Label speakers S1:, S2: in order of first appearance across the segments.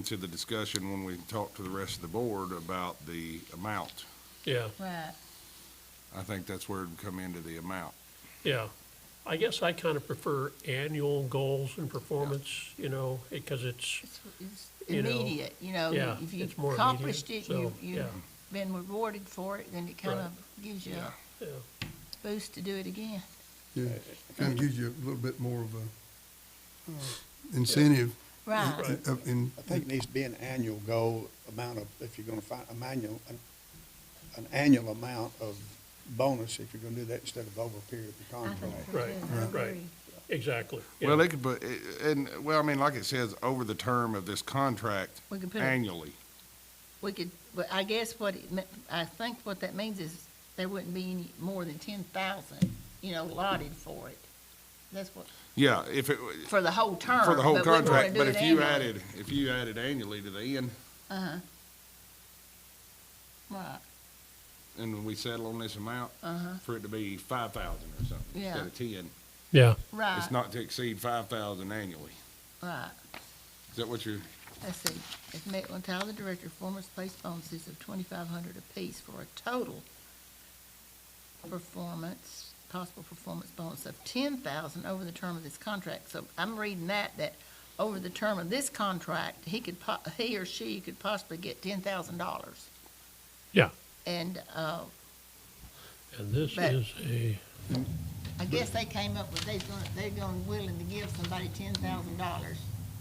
S1: into the discussion when we talk to the rest of the board about the amount.
S2: Yeah,
S3: Right.
S1: I think that's where it'd come into the amount.
S2: yeah. I guess I kind of prefer annual goals and performance, you know, because it's,
S3: It's it's
S2: You know,
S3: immediate, you know,
S2: yeah,
S3: if you
S2: it's more
S3: accomplished
S2: immediate,
S3: it,
S2: so, yeah.
S3: you, you've been rewarded for it, then it kind
S2: Right.
S3: of gives you
S1: Yeah.
S3: a
S2: yeah,
S3: boost to do it again.
S4: Yeah, kind of gives you a little bit more of a uh, incentive.
S3: Right,
S2: Right.
S4: of- in-
S5: I think it needs to be an annual goal, amount of, if you're gonna find, a manual, an, an annual amount of bonus if you're gonna do that instead of over a period of the
S3: I think
S5: contract.
S3: so
S2: Right,
S3: too. I
S2: right.
S3: agree.
S2: exactly. yeah.
S1: Well, it could, but, eh, and, well, I mean, like it says, over the term of this contract
S3: We could put, a-
S1: annually.
S3: we could, but I guess what it, me- I think what that means is there wouldn't be any more than ten thousand, you know, allotted for it. That's what,
S1: Yeah, if it,
S3: for the whole term.
S1: for the whole
S3: but we wanna
S1: contract,
S3: do
S1: but
S3: it
S1: if you
S3: annually.
S1: added, if you added annually to the end,
S3: Uh-huh. Right,
S1: and we settle on this amount,
S3: Uh-huh.
S1: for it to be five thousand or something, instead
S3: Yeah. Uh,
S1: of ten.
S2: Yeah,
S1: It's
S3: right,
S1: not to exceed five thousand annually.
S3: right.
S1: Is that what you're,
S3: Let's see, if Matt will tell the director, performance place bonuses of twenty-five hundred apiece for a total performance, possible performance bonus of ten thousand over the term of this contract. So I'm reading that, that over the term of this contract, he could po- he or she could possibly get ten thousand dollars.
S2: Yeah.
S3: And, uh,
S2: and this
S3: But-
S2: is a,
S3: I guess they came up with, they're gonna, they're gonna willing to give somebody ten thousand dollars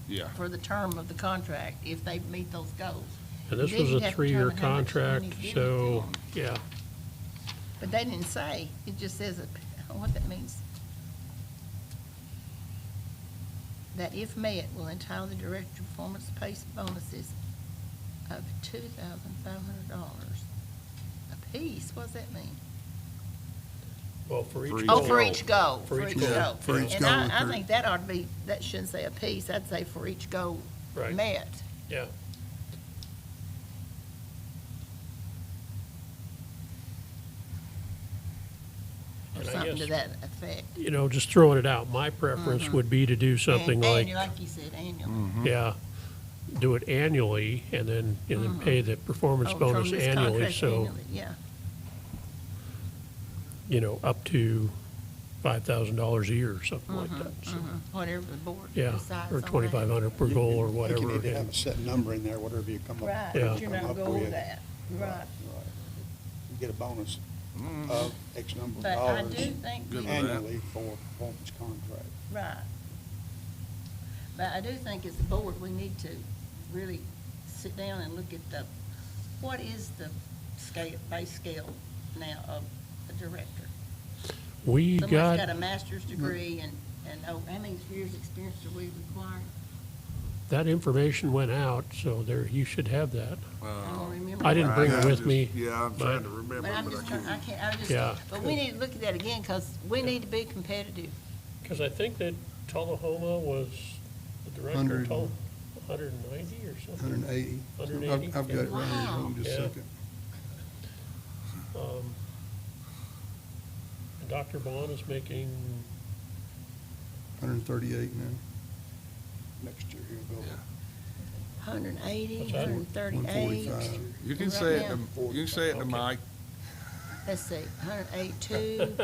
S1: yeah,
S3: for the term of the contract if they meet those goals.
S2: and this
S3: Then
S2: was
S3: you'd
S2: a
S3: have to
S2: three-year
S3: determine how much money
S2: contract,
S3: you give it
S2: so, yeah,
S3: But they didn't say, it just says, that- what that means. That if met, will entitle the director to performance-based bonuses of two thousand five hundred dollars apiece, what does that mean?
S2: well, for
S1: For
S2: each
S1: each
S3: Oh, for
S2: goal.
S3: each goal, for each goal.
S4: for each
S3: And
S4: goal,
S3: I, I
S4: for-
S3: think that ought to be, that shouldn't say apiece, I'd say for each goal
S2: Right.
S3: met.
S2: Yeah,
S3: Or
S2: And I
S3: something to
S2: guess-
S3: that effect.
S2: you know, just throwing it out, my preference would be to do something
S3: Mm-hmm. And
S2: like,
S3: annual, Like you said, annual.
S2: yeah, do it annually, and then, and then pay the performance
S3: Oh, from
S2: bonus
S3: this
S2: annually,
S3: contract
S2: so,
S3: annually, Yeah,
S2: you know, up to five thousand dollars a year or something like that, so,
S3: whatever the board
S2: yeah,
S3: decides
S2: or
S3: on Mm-hmm, that.
S2: twenty-five hundred per goal or
S5: I think
S2: whatever.
S5: you need to
S2: and-
S5: have a set number in there, whatever you come up.
S3: Right,
S2: Yeah.
S3: but you're
S5: come
S3: not
S5: up
S3: going
S5: with.
S3: with that, right.
S5: Right. You get a bonus of X number of
S3: But I
S5: dollars
S3: do think,
S1: Mm. Good
S3: you-
S1: with that.
S5: annually for performance contract.
S3: right. But I do think as a board, we need to really sit down and look at the, what is the scale, base scale now of a director?
S2: We
S3: Someone's
S2: got,
S3: got a master's degree and, and, oh, how many years' experience do we require?
S2: that information went out, so there, you should have that.
S3: I don't remember.
S2: I didn't bring
S1: I-
S2: it
S1: I
S2: with
S1: just-
S2: me.
S1: Yeah, I'm
S2: but-
S1: trying to remember,
S3: But I'm
S1: but I
S3: just trying,
S1: can't.
S3: I can't, I
S2: Yeah.
S3: just, but we need to look at that again, because we need to be competitive.
S2: Because I think that Tullahoma was, the director
S4: Hundred.
S2: told, hundred and ninety or something.
S4: 180.
S2: Hundred and eighty?
S4: I've I've got it right here,
S3: Wow.
S4: hold on just a
S2: Yeah.
S4: second.
S2: Um, and Dr. Bond is making,
S4: 138 now,
S5: Next year he'll go.
S1: Yeah.
S3: Hundred and eighty,
S2: What's that?
S3: hundred and thirty-eight.
S4: 145.
S1: You can
S3: Right
S1: say it,
S3: now.
S1: to- you can say it to
S2: Okay.
S1: Mike,
S3: Let's see, hundred and eighty-two,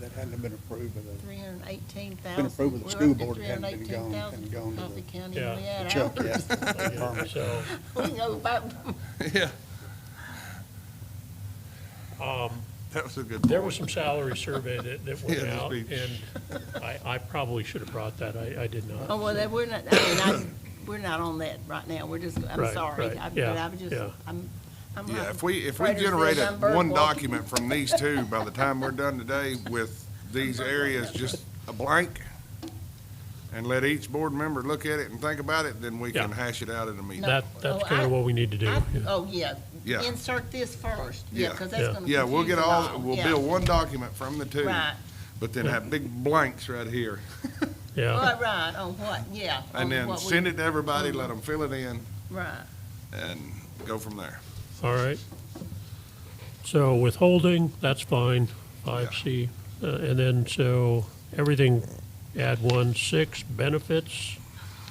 S5: That hadn't been approved by the
S3: three hundred and eighteen thousand.
S5: Been approved with the school board, it hadn't been gone- hadn't gone to
S3: Coffee
S5: the-
S3: County,
S2: Yeah.
S3: we had
S5: Chuck,
S3: ours.
S5: yeah. Department.
S2: so,
S3: We can go back,
S1: yeah,
S2: um,
S1: that was a good
S2: there was
S1: point.
S2: some salary survey that, that
S1: Yeah,
S2: went
S1: just
S2: out,
S1: be-
S2: and I, I probably should have brought that, I, I did not.
S3: oh, well, that, we're not, I mean, I, we're not on that right now, we're just, I'm
S2: Right,
S3: sorry.
S2: right,
S3: I-
S2: yeah,
S3: But I'm just,
S2: yeah.
S3: I'm, I'm.
S1: Yeah,
S3: like
S1: if we, if we
S3: Frederick says,
S1: generate a-
S3: I'm bird
S1: one
S3: walking.
S1: document from these two, by the time we're done today with these areas, just a blank, and let each board member look at it and think about it, then we can
S2: Yeah.
S1: hash it out in a meeting.
S2: That, that's
S3: Oh, I-
S2: kind of what we need to do.
S3: I-
S2: yeah.
S3: Oh, yeah.
S1: Yeah.
S3: Insert this first, yeah,
S1: Yeah.
S3: because
S2: Yeah.
S3: that's gonna.
S1: Yeah, we'll get
S3: confuse them
S1: all, we'll
S3: Yeah.
S1: build one document from the two,
S3: Right,
S1: but then have big blanks right here,
S2: Yeah,
S3: right, right, on what, yeah. on
S1: and then
S3: what we- Mhm.
S1: send it to everybody, let them fill it in,
S3: Right.
S1: and go from there.
S2: all right. So withholding, that's fine, five C. Uh, and then, so, everything, add one, six, benefits.